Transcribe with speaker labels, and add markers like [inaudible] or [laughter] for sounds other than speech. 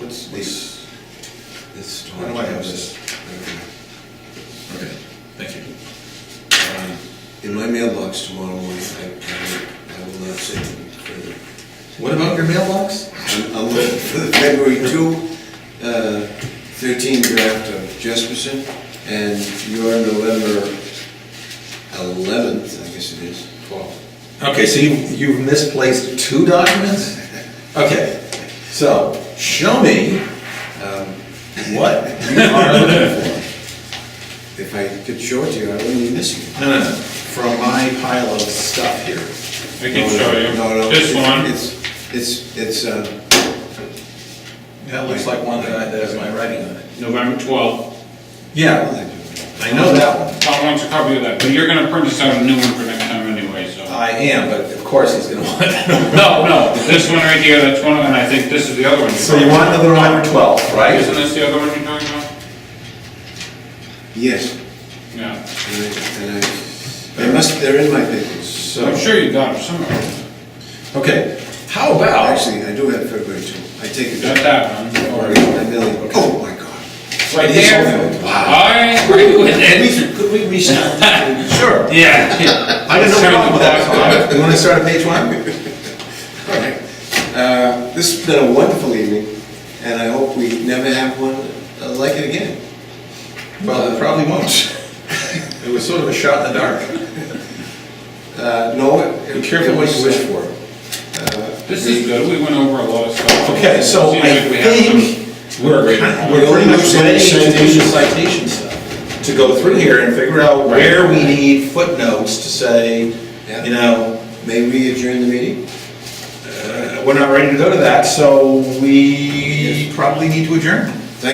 Speaker 1: This,
Speaker 2: This
Speaker 1: why do I have this?
Speaker 2: Okay, thank you. Um, In my mailbox tomorrow morning, I, I I will not say further.
Speaker 1: What about your mailbox?
Speaker 2: I'm, I'm looking for the February two, uh, thirteen draft of Jesperson, and your November eleventh, I guess it is.
Speaker 1: Okay, so you, you've misplaced two documents? Okay, so show me
Speaker 2: Um,
Speaker 1: what you are looking for.
Speaker 2: If I could show it to you, I wouldn't be missing it.
Speaker 1: No, no, no, from my pile of stuff here.
Speaker 3: I can show
Speaker 2: No, no,
Speaker 3: you. This
Speaker 2: it's-
Speaker 3: one,
Speaker 2: It's, it's, it's, uh,
Speaker 1: That looks like one that I- that has my writing on it.
Speaker 3: November 12th.
Speaker 1: Yeah, I know that one.
Speaker 3: Tom wants a copy of that, but you're gonna print us out a new one for next time anyway, so.
Speaker 1: I am, but of course he's gonna [laughs] want it.
Speaker 3: No, no, this one right here, that's one, and I think this is the other one.
Speaker 1: So you want another November 12th, right?
Speaker 3: Isn't this the other one you're talking about?
Speaker 2: yes.
Speaker 3: Yeah.
Speaker 2: And I- and I, they must, they're in my papers.
Speaker 3: I'm
Speaker 1: So,
Speaker 3: sure you got it somewhere.
Speaker 1: okay, how about,
Speaker 2: Actually, I do have February two. I take it
Speaker 3: Got
Speaker 2: back.
Speaker 3: that one.
Speaker 2: Or I merely- Oh, my God.
Speaker 3: Right
Speaker 1: It is
Speaker 3: there.
Speaker 1: open. Wow.
Speaker 3: I agree with
Speaker 1: [laughs]
Speaker 3: it.
Speaker 2: Could we restart?
Speaker 1: sure,
Speaker 3: [laughs] Yeah.
Speaker 1: I didn't know what problem with that. [laughs] You wanna start at page one?
Speaker 2: All right. Uh, This has been a wonderful evening, and I hope we never have one uh, like it again.
Speaker 1: Well, it probably won't. [laughs] It was sort of a shot in the dark.
Speaker 2: Uh, No, it...
Speaker 1: Be careful what you wish for.
Speaker 3: This is good, we went over a lot of stuff.
Speaker 1: Okay, so
Speaker 3: Seems
Speaker 1: I
Speaker 3: like we have some-
Speaker 1: think we're, we're pretty much ready to do the citation stuff, to go through here and figure out where we need footnotes to say,
Speaker 2: Yeah.
Speaker 1: you know,
Speaker 2: May we adjourn the meeting?
Speaker 1: uh, we're not ready to go to that, so we probably need to adjourn.